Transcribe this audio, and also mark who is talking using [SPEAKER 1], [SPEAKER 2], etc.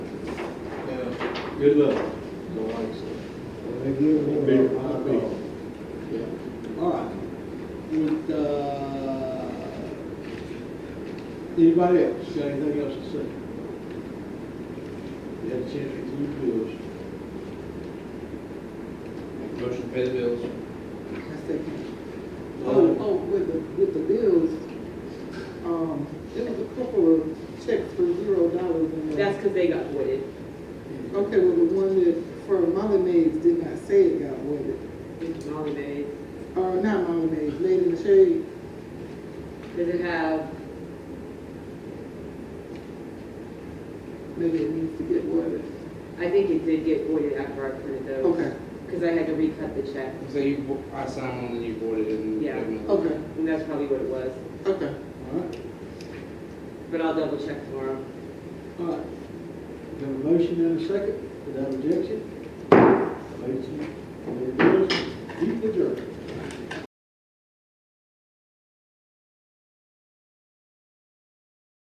[SPEAKER 1] Good luck.
[SPEAKER 2] Don't like so.
[SPEAKER 3] Well, they give me
[SPEAKER 1] Big,
[SPEAKER 3] a hot
[SPEAKER 1] big.
[SPEAKER 3] dog.
[SPEAKER 2] Yeah, all right. Would, uh, anybody else got anything else to say? You had a chance to review bills.
[SPEAKER 4] Motion to pay the bills.
[SPEAKER 5] I second. Oh, oh, with the, with the bills, um, there was a couple of checks for zero dollars in there.
[SPEAKER 6] That's because they got voided.
[SPEAKER 5] Okay, well, the one that for Molly Maids did not say it got voided.
[SPEAKER 6] It's Molly Mays.
[SPEAKER 5] Or not Molly Maids, Lady in the Shade.
[SPEAKER 6] Does it have,
[SPEAKER 5] Maybe it needs to get voided.
[SPEAKER 6] I think it did get voided after I printed those.
[SPEAKER 5] Okay,
[SPEAKER 6] Because I had to recut the check.
[SPEAKER 4] So you, vo- I signed one and you voided it and.
[SPEAKER 6] Yeah.
[SPEAKER 5] okay,
[SPEAKER 6] And that's probably what it was.
[SPEAKER 5] okay.
[SPEAKER 2] All right,
[SPEAKER 6] But I'll double check tomorrow.
[SPEAKER 2] all right. Got a motion and a second, without objection? Ladies, lady bills,